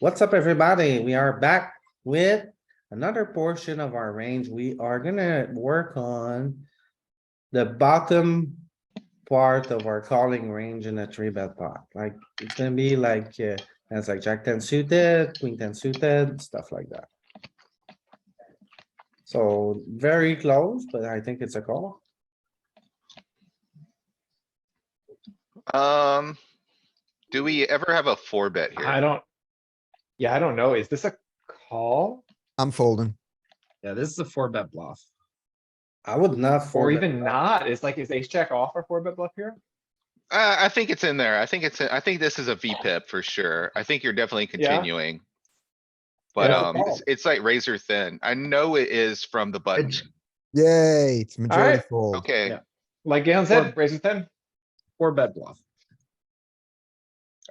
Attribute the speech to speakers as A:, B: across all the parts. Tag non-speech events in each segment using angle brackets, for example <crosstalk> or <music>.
A: What's up, everybody? We are back with another portion of our range. We are gonna work on the bottom part of our calling range in a three bet pot. Like, it's gonna be like, uh, it's like jack ten suited, queen ten suited, stuff like that. So very close, but I think it's a call.
B: Um, do we ever have a four bet
C: I
B: here?
C: don't. Yeah, I don't know. Is this a call
D: I'm folding.
E: Yeah, this is a four bet bluff.
A: I would not.
C: or
A: fold it.
C: even not? It's like, is ace jack off or four bet bluff here?
B: Uh, I think it's in there. I think it's, in- I think this is a VPip for sure. I think you're definitely
C: Yeah.
B: continuing. But,
C: Yeah.
B: um, it's, it's like razor thin. I know it is from the button.
D: Yay, it's majority
C: Alright.
D: fold.
B: Okay,
E: Yeah.
C: Like Galen
E: Well-
C: said, raise with ten.
E: Four bet bluff.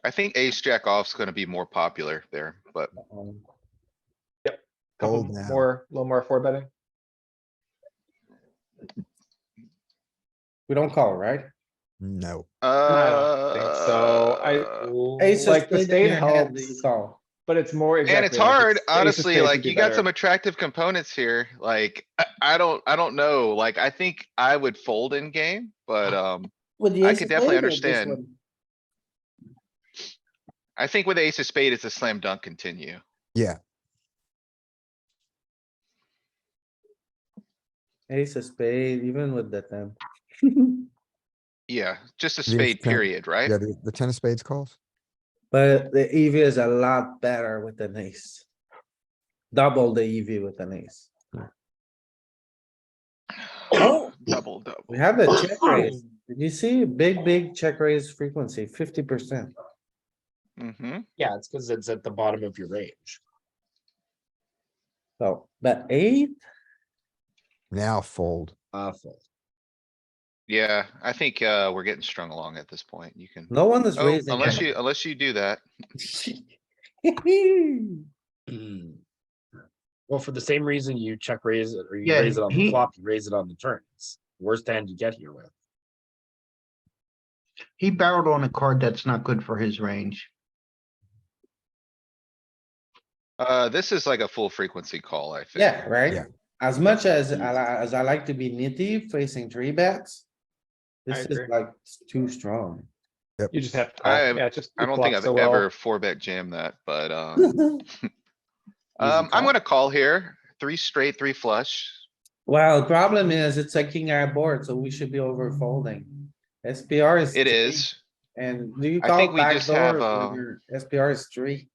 B: I think ace jack off's gonna be more popular there, but
A: Um,
C: Couple
D: Fold now.
C: more, a little more four betting.
A: We don't call, right?
D: No,
C: I
B: uh.
C: don't think so.
A: Ace
C: I,
A: of
C: like the
A: spades in
C: state
A: your hand, do
C: helps,
A: you Call.
C: but it's more.
B: And
C: exactly,
B: it's
C: like,
B: hard,
C: ace of
B: honestly,
C: spades would
B: like
C: be
B: you got
C: better.
B: some attractive components here. Like, I, I don't, I don't know. Like, I think I would fold in game, but,
C: Uh-huh.
B: um.
A: With the
B: I
A: ace
B: could
A: of
B: definitely
A: spade or this
B: understand.
A: one?
B: I think with ace of spade, it's a slam dunk continue.
A: Ace of spade, even with the ten.
B: Yeah, just a
D: Yes,
B: spade
D: ten.
B: period, right?
D: yeah, the, the ten of spades calls.
A: <laughs> But the EV is a lot better with an ace. Double the EV with an ace.
C: Oh.
B: <clears throat> Double, double.
A: We have a
B: <coughs>
A: check raise. Did you see big, big check raise frequency, fifty percent?
B: Mm-hmm.
E: Yeah, it's because it's at the bottom of your range.
A: So, but eight,
D: Now fold.
E: Uh, fold.
B: Yeah, I think, uh, we're getting strung along at this point. You can,
A: no one is
B: oh,
A: raising.
B: unless you, unless you do that.
A: <laughs> you.
E: Well, for the same reason you check raise it or you
B: Yeah,
E: raise it on
B: he-
E: the flop, you raise it on the turns. Worst hand you get here with.
F: He barreled on a card that's not good for his range.
B: Uh, this is like a full frequency call, I think.
A: Yeah,
D: Yeah.
A: right? As much as
B: Mm-hmm.
A: I, li- as I like to be nitty facing three bets. This is
C: agree.
A: like too strong. <laughs>
C: You just have. to call.
B: I-
C: Yeah, it's just.
B: I
C: you
B: don't think
C: flop
B: I've
C: so well.
B: ever four bet jammed that, but, um, um, I'm
E: call.
B: gonna call here. Three straight, three flush.
A: Well, the problem is it's a king eye board, so we should be over folding. SPR is.
B: It
A: three,
B: is.
A: And do you
B: I
A: call
B: think we just
A: backdoor
B: have, uh,
A: when your SPR is three?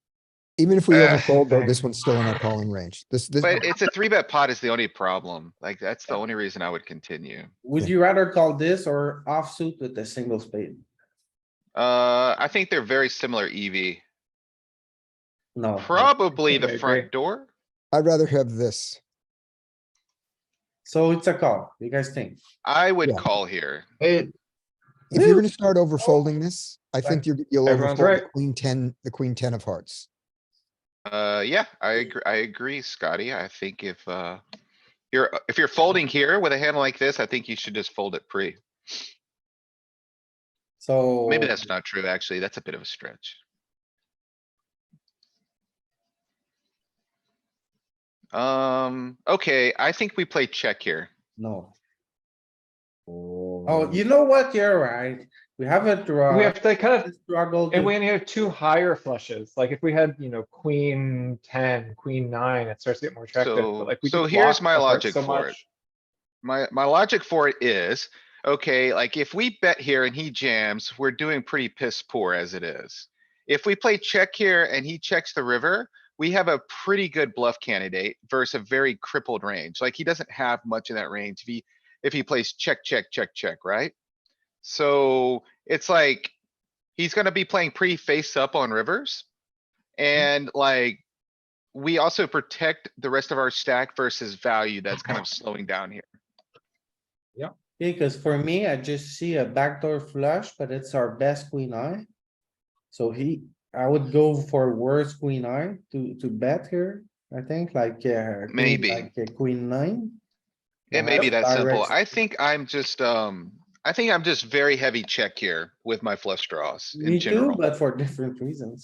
D: Even if we
B: Uh,
D: overfold,
B: <laughs>
D: though, this one's still in our calling range. This, this,
B: But it's a three bet pot is the only problem. Like, that's the only reason I would continue.
A: Would
D: Yeah.
A: you rather call this or offsuit with a single spade?
B: Uh, I think they're very similar E EV.
A: No.
B: Probably
C: Oh, I
B: the
C: agree.
B: front door.
D: I'd rather have this.
A: So it's a call. You guys think?
B: I would
D: Yeah.
B: call here.
F: It,
D: If you're gonna start
B: Oh.
D: overfolding this, I think you're, you'll
C: Everyone's
D: overfold the
C: right.
D: queen ten, the queen ten of hearts.
B: Uh, yeah, I agree, I agree, Scotty. I think if, uh, you're, if you're folding here with a hand like this, I think you should just fold it pre.
A: So.
B: Maybe that's not true, actually. That's a bit of a stretch. Um, okay, I think we play check here.
A: No. Oh, you know what? You're right. We have a draw.
C: We have to kind of
A: Struggle.
C: And we only have two higher flushes, like if we had, you know, queen ten, queen nine, it starts to get more attractive,
B: So-
C: but like we.
B: so
C: just
B: here's
C: block
B: my
C: the heart
B: logic
C: so
B: for it.
C: much.
B: My, my logic for it is, okay, like if we bet here and he jams, we're doing pretty piss poor as it is. If we play check here and he checks the river, we have a pretty good bluff candidate versus a very crippled range. Like he doesn't have much in that range if he, if he plays check, check, check, check, right? So it's like, he's gonna be playing pretty face up on rivers. And like, we also protect the rest of our stack versus value that's kind of slowing down here.
A: Because for me, I just see a backdoor flush, but it's our best queen eye. So he, I would go for worse queen eye to, to bet here, I think, like, yeah.
B: Maybe.
A: Like a queen nine.
B: It may
A: Yeah,
B: be that
A: I
B: simple.
A: rest-
B: I think I'm just, um, I think I'm just very heavy check here with my flush draws in
A: Me too,
B: general.
A: but for different reasons.